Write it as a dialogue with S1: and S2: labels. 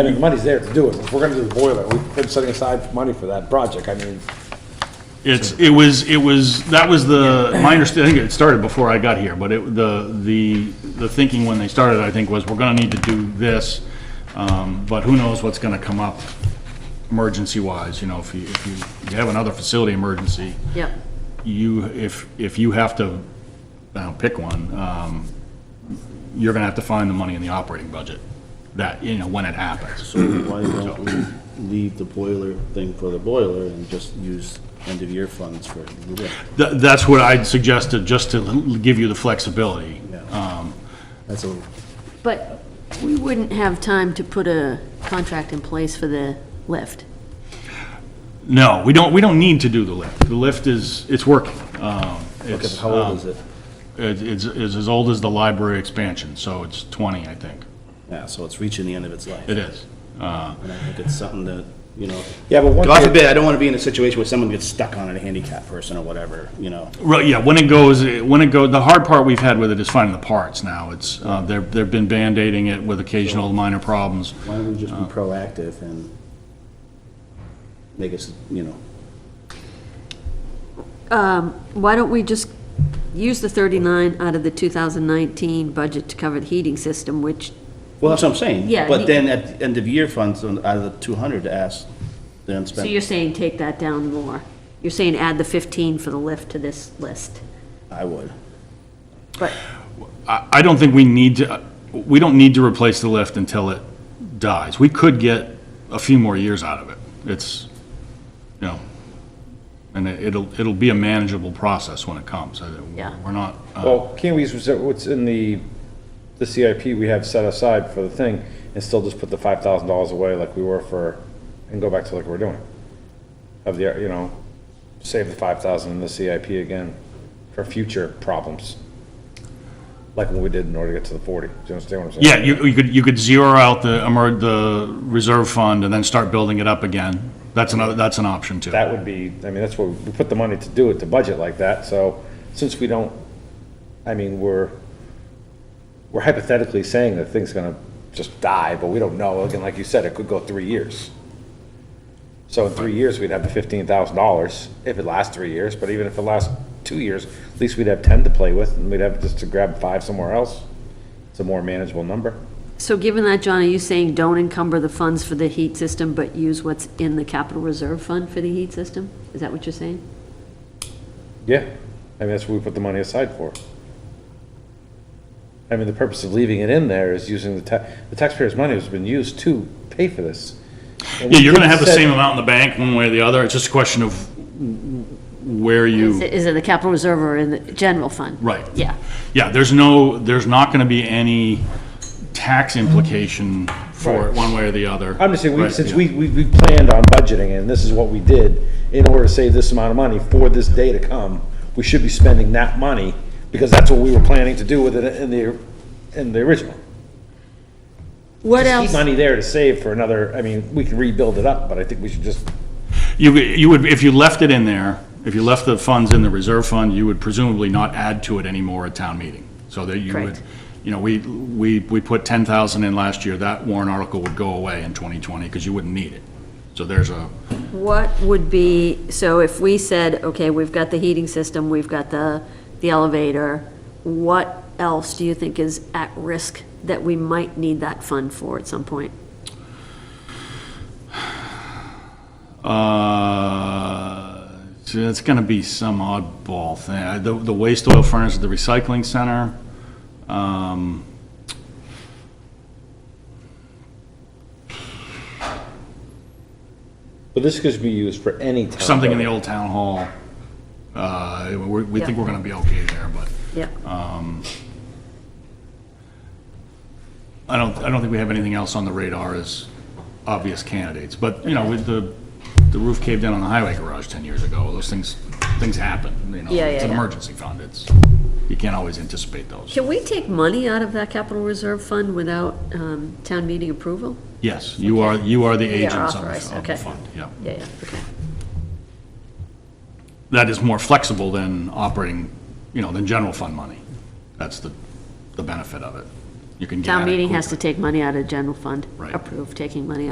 S1: I mean, the money's there to do it. If we're gonna do the boiler, we've been setting aside money for that project. I mean,
S2: It's, it was, it was, that was the, my understanding, I think it started before I got here, but it, the, the, the thinking when they started, I think, was we're gonna need to do this, um, but who knows what's gonna come up emergency-wise, you know, if you, if you you have another facility emergency,
S3: Yep.
S2: you, if, if you have to, I don't know, pick one, um, you're gonna have to find the money in the operating budget, that, you know, when it happens.
S4: So why don't we leave the boiler thing for the boiler and just use end-of-year funds for the lift?
S2: Tha- that's what I'd suggested, just to give you the flexibility. Um,
S4: That's a,
S3: But we wouldn't have time to put a contract in place for the lift.
S2: No, we don't, we don't need to do the lift. The lift is, it's working. Um,
S4: okay,
S2: It's,
S4: how old
S2: um,
S4: is it?
S2: it- It's, it's as old as the library expansion, so it's 20, I think.
S4: Yeah, so it's reaching the end of its life.
S2: It is. Uh,
S4: And I think it's something that, you know,
S1: yeah, but one
S4: God
S1: thing,
S4: forbid, I don't want to be in a situation where someone gets stuck on it, a handicapped person or whatever, you know?
S2: Right, yeah, when it goes, when it go, the hard part we've had with it is finding the parts now. It's, uh, they're, they've been Band-Aiding it with occasional minor problems.
S4: Why don't we just
S2: Um,
S4: be proactive and make us, you know,
S3: Why don't we just use the 39 out of the 2019 budget to cover the heating system, which,
S4: well, that's what I'm saying.
S3: Yeah, the-
S4: But then at the end-of-year funds, on- out of the 200 to ask the
S3: so
S4: unspent,
S3: you're saying take that down more? You're saying add the 15 for the lift to this list?
S4: I would.
S3: But,
S2: I, I don't think we need to, we don't need to replace the lift until it dies. We could get a few more years out of it. It's, you know, and it- it'll, it'll be a manageable process when it comes. I-
S3: Yeah.
S2: We're not, uh,
S1: well, can't we use what's in the, the CIP we have set aside for the thing and still just put the five thousand dollars away like we were for, and go back to like we're doing? Of the, you know, save the five thousand in the CIP again for future problems. Like what we did in order to get to the forty. Do you understand what I'm
S2: yeah,
S1: saying?
S2: you, you could, you could zero out the, emer- the reserve fund and then start building it up again. That's another, that's an option too.
S1: That would be, I mean, that's what, we put the money to do it, to budget like that, so since we don't, I mean, we're, we're hypothetically saying that thing's gonna just die, but we don't know, again, like you said, it could go three years. So in three years, we'd have the fifteen thousand dollars, if it lasts three years, but even if it lasts two years, at least we'd have ten to play with, and we'd have just to grab five somewhere else. It's a more manageable number.
S3: so given that, John, are you saying don't encumber the funds for the heat system, but use what's in the capital reserve fund for the heat system? Is that what you're saying?
S1: Yeah, I mean, that's what we put the money aside for. I mean, the purpose of leaving it in there is using the ta, the taxpayers' money has been used to pay for this.
S2: Yeah, you're gonna have the same amount in the bank one way or the other. It's just a question of where you.
S3: Is it- is it the capital reserve or in the general fund?
S2: Right.
S3: Yeah.
S2: Yeah, there's no, there's not gonna be any tax implication for it, one way or the other.
S1: I'm just saying, we,
S2: Right,
S1: since
S2: yeah.
S1: we, we, we planned on budgeting and this is what we did in order to save this amount of money for this day to come, we should be spending that money because that's what we were planning to do with it in the, in the original.
S3: What
S1: Just keep
S3: else?
S1: Money there to save for another, I mean, we can rebuild it up, but I think we should just
S2: You, you would, if you left it in there, if you left the funds in the reserve fund, you would presumably not add to it anymore at town meeting. So that you would,
S3: Correct.
S2: you know, we, we, we put ten thousand in last year, that warrant article would go away in twenty twenty, because you wouldn't need it. So there's a,
S3: What would be, so if we said, okay, we've got the heating system, we've got the, the elevator, what else do you think is at risk that we might need that fund for at some point?
S2: Uh, so it's gonna be some oddball thing. I- The, the waste oil furnace at the recycling center. um,
S1: But this could be used for any town.
S2: Something in the
S1: building.
S2: old town hall. Uh, we, we think we're gonna be okay there, but
S3: Yeah.
S2: Um, I don't, I don't think we have anything else on the radar as obvious candidates. But, you know, with the, the roof caved in on the highway garage ten years ago, those things, things happen, you know.
S3: Yeah,
S2: It's an
S3: yeah, yeah.
S2: emergency fund. It's, you can't always anticipate those.
S3: Can we take money out of that capital reserve fund without, um, town meeting approval?
S2: Yes, you are, you are the
S3: We are
S2: agents on
S3: authorized,
S2: the- on
S3: okay.
S2: the fund, yeah.
S3: Yeah, yeah, okay.
S2: that is more flexible than operating, you know, than general fund money. That's the, the benefit of it. you can get out
S3: Town
S2: of
S3: meeting
S2: quickly.
S3: has to take money out of general fund.
S2: Right.
S3: Approve taking money